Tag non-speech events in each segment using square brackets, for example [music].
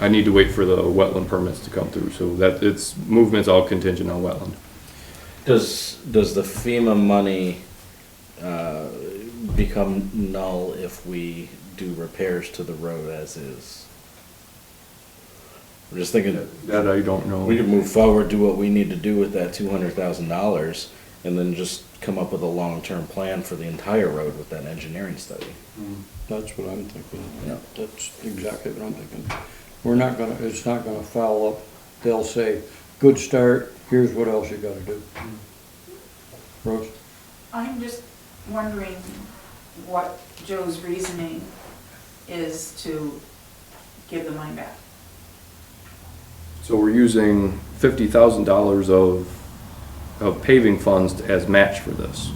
I need to wait for the wetland permits to come through, so that, it's, movement's all contingent on wetland. Does, does the FEMA money uh, become null if we do repairs to the road as is? I'm just thinking, That I don't know. we can move forward, do what we need to do with that two hundred thousand dollars, and then just come up with a long-term plan for the entire road with that engineering study. That's what I'm thinking. Yeah. That's exactly what I'm thinking. We're not gonna, it's not gonna foul up. They'll say, good start, here's what else you gotta do. Rose? I'm just wondering what Joe's reasoning is to give the money back. So we're using fifty thousand dollars of, of paving funds as match for this.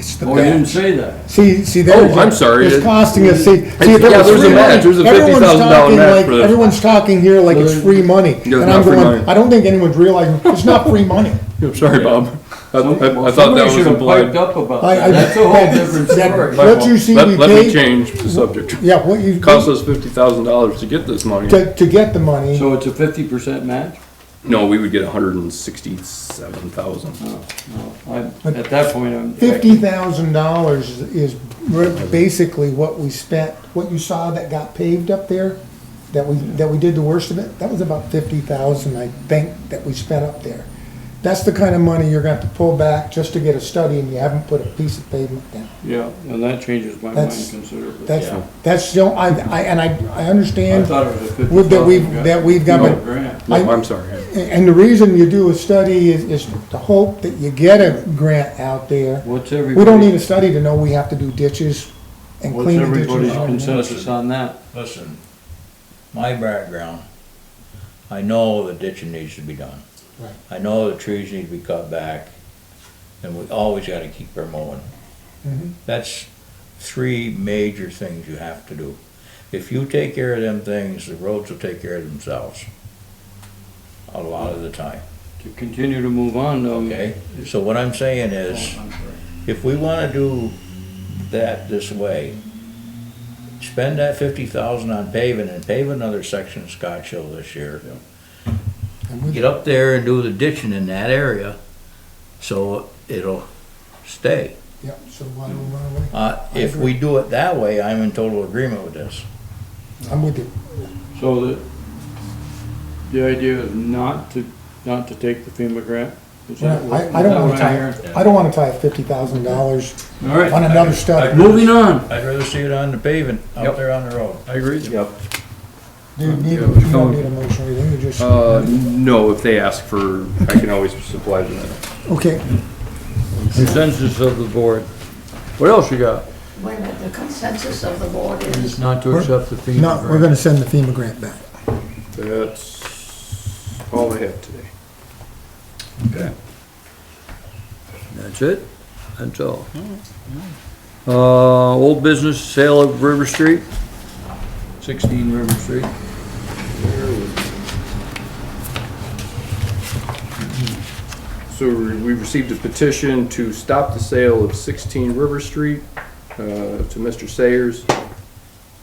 It's the Oh, you didn't match. say that. See, see, Oh, there's. I'm sorry. It's costing us, see, see, yeah, if it was there's a free match. There's a money, everyone's $50,000 talking match like, for this. everyone's talking here like it's free money. And it's I'm not free going, money. I don't think anyone's realizing, it's not free money. I'm sorry, Bob. I, I- I Well, thought that somebody was should have piped implied. up about I- that. I- That's a [laughs] whole different that- story. What you see, Let, we let me paid- change the subject. Yeah, what you, Cost us fifty thousand dollars to get this money. to, to get the money, So it's a fifty percent match? No, we would get a hundred and sixty-seven thousand. No, no. I- At that point, I'm. fifty thousand dollars is re- basically what we spent, what you saw that got paved up there, that we, that we did the worst of it, that was about fifty thousand, I think, that we spent up there. That's the kind of money you're gonna have to pull back just to get a study and you haven't put a piece of pavement down. Yeah, and that changes my mind That's- considerably. Yeah. That's, that's, the I, I, and I, I I understand, thought it was a fifty Would that we've- thousand. that we've got a- Grant. No, I- I'm sorry. and the reason you do a study is, is to hope that you get a grant out there. What's everybody? We don't need a study to know we have to do ditches and What's clean the everybody's ditches. Oh, consensus on that? Listen, my background, I know the ditching needs to be done. Right. I know the trees need to be cut back, and we always gotta keep our mowing. Mhm. That's three major things you have to do. If you take care of them things, the roads will take care of themselves. A lot of the time, To continue to move on, um, though. okay? So what I'm saying is, if we wanna do that this way, spend that fifty thousand on paving and pave another section of Scotch Hill this year. And we- Get up there and do the ditching in that area, so it'll stay. Yeah, so why don't we run away? Uh, if we do it that way, I'm in total agreement with this. I'm with you. So the, the idea is not to, not to take the FEMA grant? Is that what- I, I don't wanna is that tie, what I don't wanna tie fifty thousand dollars I heard? All on right, another study. moving on. I'd rather see it on the paving, Yep. out there on the road. I agree. Yep. You need, you Yeah, we're don't going- need a motion or anything, you just, Uh, no, if they ask for, I can always supply them. that. okay. Consensus of the board What else you got? Wait a minute, the consensus of the board is, is not to We're- accept the FEMA No, we're grant. gonna send the FEMA grant back. That's all I have today. That's it? That's all. Uh, old business, sale of River Street, sixteen River Street. So we received a petition to stop the sale of 16 River Street uh, to Mr. Sayers.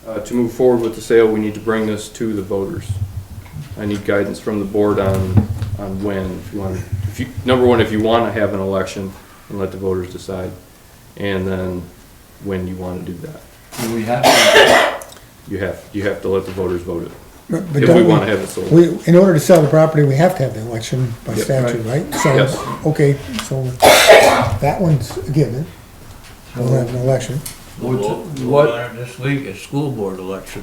Uh, To move forward with the sale, we need to bring this to the voters. I need guidance from the board on, on when, if you want, if you, number one, if you want to have an election and let the voters decide, and then when you want to do that. Do we have, to- You have, you have to let the voters vote it, But- but if we don't want to have it sold. We, in order to sell the property, we have to have the election by Yep. statute, right? So, Yes. Okay, so that one's a given. We'll have an election. We'll What's- vote- we'll what- vote on it This week, it's school board election.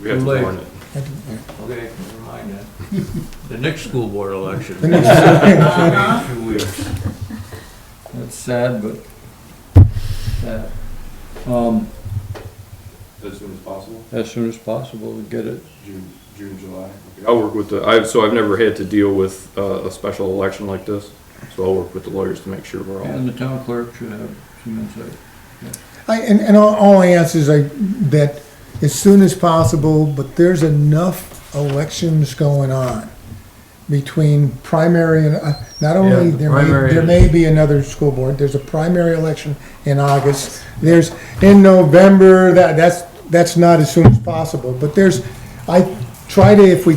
We have to warn it. Okay, never mind that. The next school board election. The next- Few weeks. that's sad, but, sad. Um, As soon as possible? as soon as possible to get it. June, June, July. I'll work with the, I, so I've never had to deal with uh, a special election like this, so I'll work with the lawyers to make sure we're all. And the town clerk should have some insight. I, and, and all, all I ask is I, that as soon as possible, but there's enough elections going on between primary and, uh, not only, the there may, primary there is- may be another school board, there's a primary election in August, there's, in November, that, that's, that's not as soon as possible, but there's, I, try to, if we